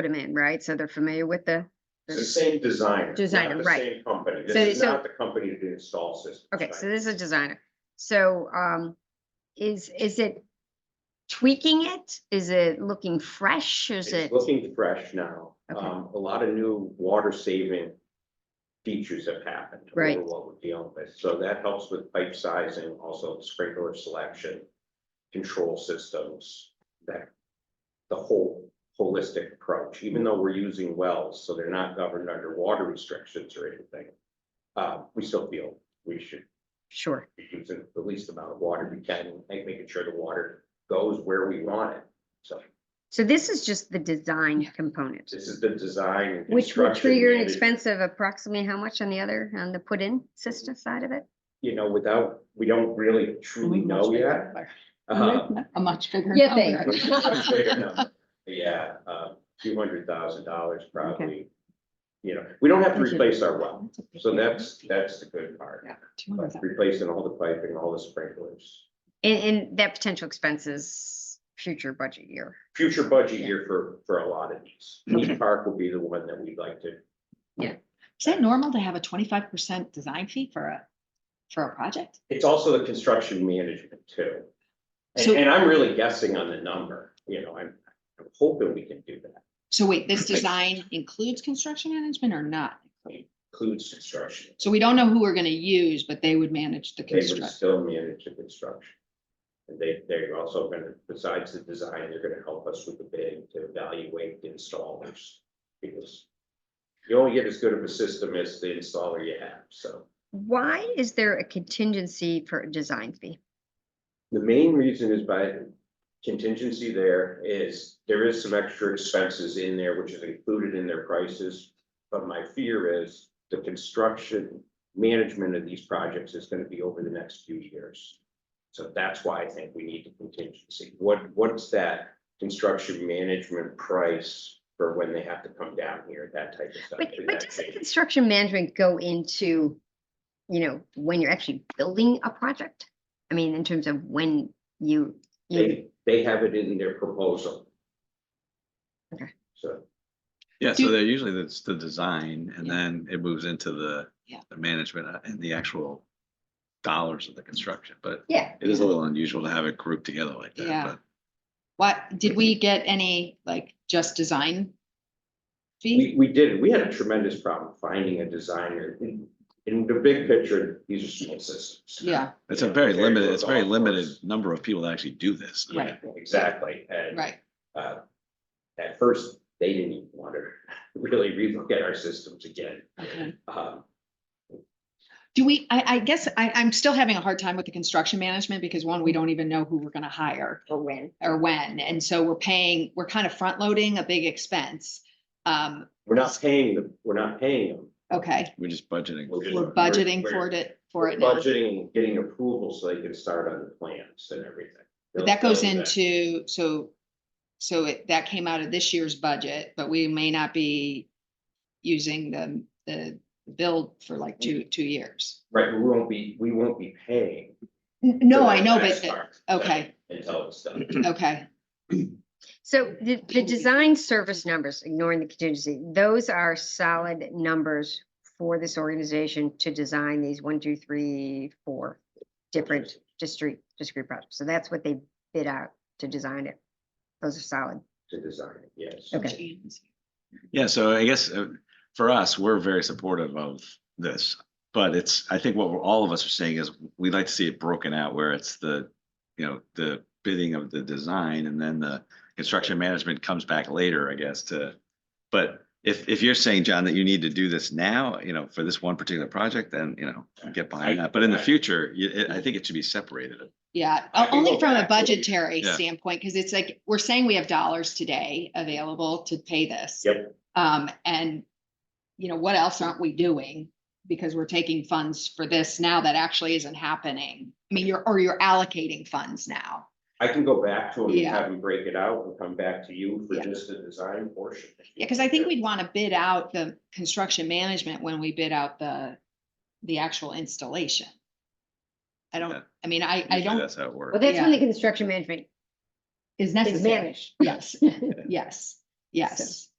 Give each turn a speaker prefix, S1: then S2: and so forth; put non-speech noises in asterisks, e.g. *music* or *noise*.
S1: put them in, right? So they're familiar with the,
S2: It's the same designer.
S1: Designer,
S2: not the
S1: right.
S2: Same company.
S1: So-
S2: This is
S1: so-
S2: not the company that installs systems.
S1: okay,
S2: right?
S1: so this is a designer. So, um, is, is it tweaking it? Is it looking fresh? Is it?
S2: It's looking fresh now.
S1: Okay.
S2: Um, a lot of new water saving features have happened. over
S1: Right.
S2: What we're dealing with. So that helps with pipe sizing, also sprinkler selection, control systems, that the whole holistic approach, even though we're using wells, so they're not governed under water restrictions or anything. Uh, we still feel we should
S1: Sure,
S2: using the least amount of water we can, like making sure the water goes where we want it. So
S1: so this is just the design component,
S2: this is the design. and
S1: which will
S2: construction
S1: trigger an
S2: management.
S1: expense of approximately how much on the other, on the put-in system side of it?
S2: You know, without, we don't really truly know Mm, yet. *laughs* Uh,
S3: A much bigger. Oh
S1: Yeah, they-
S3: number.
S2: Yeah, uh, few hundred thousand dollars probably. You know, we don't have to
S1: Thank you.
S2: replace our well, so that's, that's the good part.
S3: Yeah,
S2: But
S3: 200,000.
S2: Replacing all the piping, all the sprinklers.
S1: And, and that potential expense is future budget year.
S2: Future budget
S1: Yeah.
S2: year for, for a lot of these.
S3: Okay.
S2: Heath Park will be the one that we'd like to
S3: Is that normal to have a twenty-five percent design fee for a, for a project?
S2: It's also the construction management too. And,
S3: So-
S2: and I'm really guessing on the number, you know, I'm, I'm hoping we can do that,
S3: So wait, this design includes construction management or not?
S2: includes construction.
S3: So we don't know who we're gonna use, but they would manage the
S2: They would
S3: construction.
S2: still manage the construction. And they, they're also gonna, besides the design, they're gonna help us with the bid to evaluate the installers. Because you only get as good of a system as the installer you have, so.
S1: Why is there a contingency for a design fee?
S2: The main reason is by contingency there is, there is some extra expenses in there, which is included in their prices. But my fear is the construction management of these projects is gonna be over the next few years. So that's why I think we need the contingency. What, what's that construction management price for when they have to come down here, that type of stuff?
S1: But,
S2: for
S1: but
S2: that
S1: doesn't
S2: change?
S1: construction management go into, you know, when you're actually building a project? I mean, in terms of when you, you,
S2: They, they have it in their proposal.
S1: Okay.
S2: So.
S4: Yeah,
S3: Do-
S4: so they're usually that's the design and
S3: Yeah.
S4: then it moves into the.
S3: Yeah.
S4: The management uh, and the actual dollars of the construction, but
S1: yeah,
S4: it is a little unusual to have it grouped together like
S3: Yeah.
S4: that,
S3: What, did we get any, like, just design?
S2: We,
S3: Fee?
S2: we did, we had a tremendous problem finding a designer. In- In the big picture, these are small systems.
S3: Yeah,
S4: but it's a
S2: Yeah,
S4: very
S2: very
S4: limited,
S2: little
S4: it's a very
S2: golf
S4: limited
S2: course.
S4: number of people that actually do this. I mean,
S3: Right.
S2: Exactly, and,
S3: right.
S2: uh, at first, they didn't even want to really relook at our systems again.
S3: Okay.
S2: Um,
S3: Do we, I, I guess I, I'm still having a hard time with the construction management because one, we don't even know who we're gonna hire
S1: or when.
S3: or when. And so we're paying, we're kind of front loading a big expense. Um,
S2: we're not paying them, we're not paying them.
S3: okay,
S4: We're just budgeting.
S2: We're just-
S3: we're budgeting
S2: we're-
S3: for it, for it now.
S2: Budgeting, and getting approval so they can start on the plans and everything.
S3: But that goes
S2: They'll- they'll do
S3: into, so, so it, that came out of this year's budget, but we may not be using the, the build for like two, two years.
S2: Right, we won't be, we won't be paying.
S3: N- No,
S2: for
S3: I know,
S2: that
S3: but,
S2: part
S3: okay,
S2: Until it's done.
S3: okay,
S1: So the, the
S3: Can we-
S1: design service numbers, ignoring the contingency, those are solid numbers for this organization to design these one, two, three, four different discrete, discrete projects. So that's what they bid out to design it. Those are solid.
S2: to design it, yes.
S1: Okay.
S4: Yeah, so I guess uh, for us, we're very supportive of this, but it's, I think what we're- all of us are saying is we'd like to see it broken out where it's the, you know, the bidding of the design and then the construction management comes back later, I guess, to, but if, if you're saying, John, that you need to do this now, you know, for this one particular project, then, you know, I get behind that. But in the future, you, it- I think it should be separated.
S3: yeah,
S2: I
S3: o-
S2: can
S3: only
S2: go
S3: from a
S2: back to the-
S3: budgetary
S4: Yeah.
S3: standpoint, because it's like, we're saying we have dollars today available to pay this.
S2: Yep.
S3: Um, and, you know, what else aren't we doing? Because we're taking funds for this now that actually isn't happening. I mean, you're, or you're allocating funds now.
S2: I can go back to them and
S3: Yeah.
S2: have them break it out and come back to you for
S3: Yeah.
S2: just the design portion.
S3: Yeah, because I think we'd want to bid out the construction management when we bid out the, the actual installation. I
S4: Yeah.
S3: don't, I mean, I, I
S4: Usually
S3: don't,
S4: That's how it works.
S1: Well, that's when the construction management
S3: is
S1: is
S3: *laughs* necessary.
S1: managed.
S4: *laughs*
S3: Yes, yes, yes.